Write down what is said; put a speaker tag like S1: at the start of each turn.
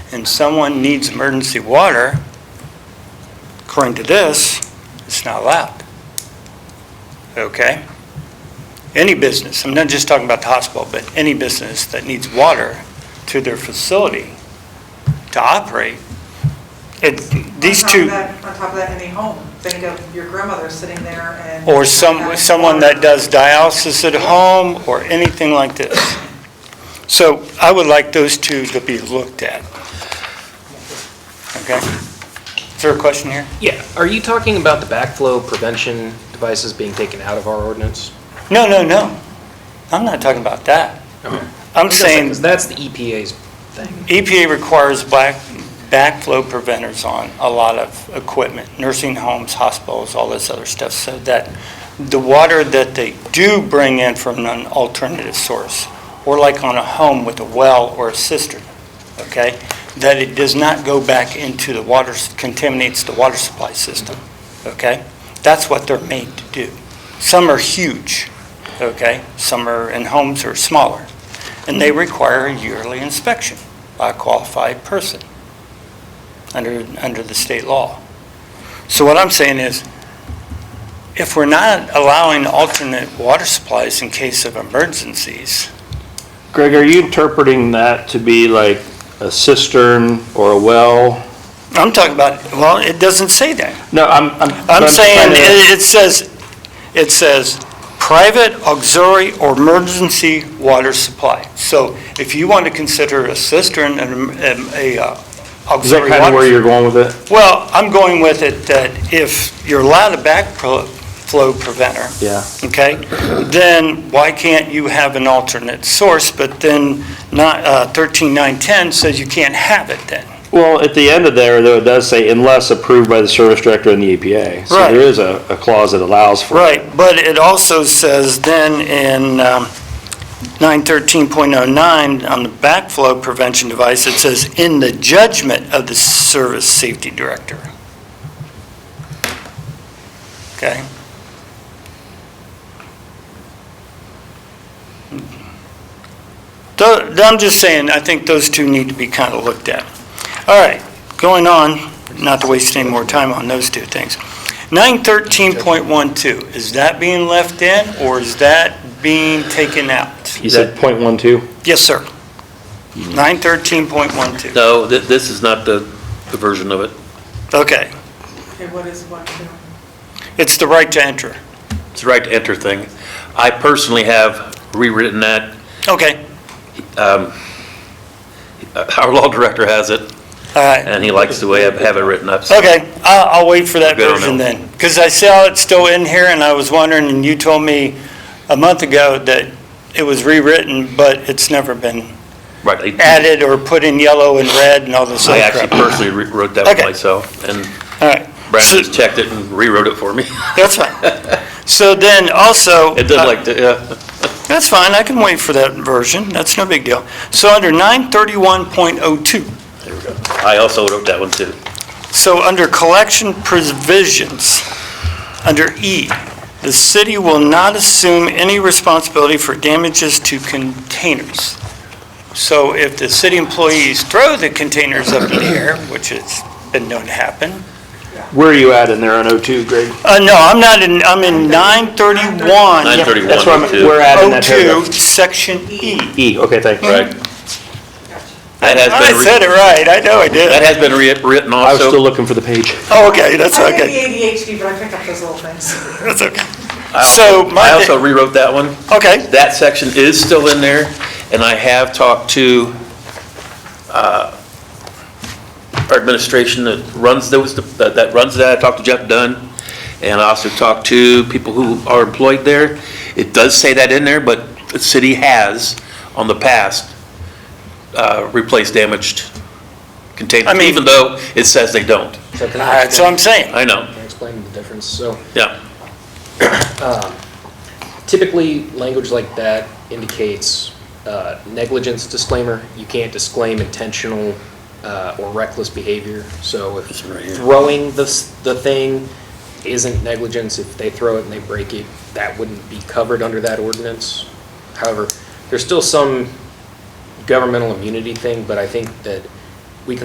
S1: and someone needs emergency water, according to this, it's not allowed. Okay? Any business, I'm not just talking about the hospital, but any business that needs water to their facility to operate, it, these
S2: On top of
S1: two,
S2: that- On top of that, any home, think of your grandmother sitting there and.
S1: or some, someone that does dialysis at home, or anything like this. So I would like those two to be looked at. Okay? Is there a question here?
S3: Yeah, are you talking about the backflow prevention devices being taken out of our ordinance?
S1: No, no, no. I'm not talking about that. I'm saying
S3: Because that's the EPA's thing.
S1: EPA E requires black, backflow preventers on a lot of equipment, nursing homes, hospitals, all this other stuff, so that the water that they do bring in from an alternative source, or like on a home with a well or a cistern, okay, that it does not go back into the water, contaminates the water supply system, okay? That's what they're made to do. Some are huge, okay? Some are, and homes are smaller, and they require a yearly inspection by a qualified person under, under the state law. So what I'm saying is, if we're not allowing alternate water supplies in case of emergencies,
S4: Greg, are you interpreting that to be like a cistern or a well?
S1: I'm talking about, well, it doesn't say that.
S4: No, I'm, I'm.
S1: I'm saying,
S4: trying to-
S1: it, it says, it says, private auxiliary or emergency water supply. So if you want to consider a cistern and a uh,
S4: Is that
S1: auxiliary
S4: kind of where
S1: water
S4: you're going with it?
S1: Well, I'm going with it that if you're allowed a backflow preventer,
S4: Yeah.
S1: okay, then why can't you have an alternate source? But then not, uh, 13910 says you can't have it then.
S4: Well, at the end of there, though, it does say unless approved by the service director and the EPA. So
S1: Right.
S4: there is a, a clause that allows for. it.
S1: Right, but it also says then in um, 913.09, on the backflow prevention device, it says, "In the judgment of the Service Safety Director." Okay? Tho- I'm just saying, I think those two need to be kind of looked at. All right, going on, not to waste any more time on those two things. 913.12, is that being left in, or is that being taken out?
S4: You said point one two?
S1: Yes, sir. 913.12,
S5: No, thi- this is not the, the version of it.
S1: okay.
S2: Okay, what is what, too?
S1: It's the right to enter.
S5: It's the right to enter thing. I personally have rewritten that.
S1: Okay,
S5: Um, Uh, Our law director has it,
S1: all right.
S5: and he likes the way I have it written up. so-
S1: Okay, I'll, I'll wait for that
S5: Good on
S1: version
S5: that.
S1: then. Because I saw it still in here, and I was wondering, and you told me a month ago that it was rewritten, but it's never been
S5: Right. I-
S1: added or put in yellow and red and all this
S5: I
S1: other
S5: actually
S1: crap.
S5: personally re- wrote that
S1: Okay.
S5: one myself, and
S1: All right,
S5: Brandon just checked it and rewrote it for me.
S1: that's fine. So then also.
S5: It does
S1: uh,
S5: like, to- yeah,
S1: That's fine, I can wait for that version, that's no big deal. So under 931.02,
S5: there we go. I also wrote that one too.
S1: so under collection provisions, under E, the city will not assume any responsibility for damages to containers. So if the city employees throw the containers up in the air, which has been known to happen,
S4: Where are you at in there on O two, Greg?
S1: uh, no, I'm not in, I'm in 931.02,
S5: 931
S4: That's where I'm,
S5: too.
S4: we're at in that paragraph.
S1: oh section E.
S4: E, okay, thank you.
S5: Right. That has
S1: I
S5: been,
S1: said
S5: re-
S1: it right, I know I
S5: that
S1: did.
S5: has been re- written
S4: I was still
S5: also.
S4: looking for the page.
S1: Oh, Okay, that's
S2: I have
S1: okay.
S2: ADHD, but I pick up those little things.
S1: That's okay.
S5: I
S1: So
S5: also-
S1: my
S5: I
S1: thi-
S5: also rewrote that one.
S1: Okay,
S5: That section is still in there, and I have talked to uh, our administration that runs those, that that runs that, I talked to Jeff Dunn, and I also talked to people who are employed there. It does say that in there, but the city has, on the past, uh, replaced damaged
S1: I
S5: containers,
S1: mean-
S5: even though it says they don't.
S3: So can I
S1: that's what
S3: explain,
S1: I'm saying.
S5: I know,
S3: can I explain the difference? So
S5: yeah,
S3: um, typically, language like that indicates uh, negligence disclaimer. You can't disclaim intentional uh, or reckless behavior. So if
S5: This one right here.
S3: throwing the, s- the thing isn't negligence, if they throw it and they break it, that wouldn't be covered under that ordinance. However, there's still some governmental immunity thing, but I think that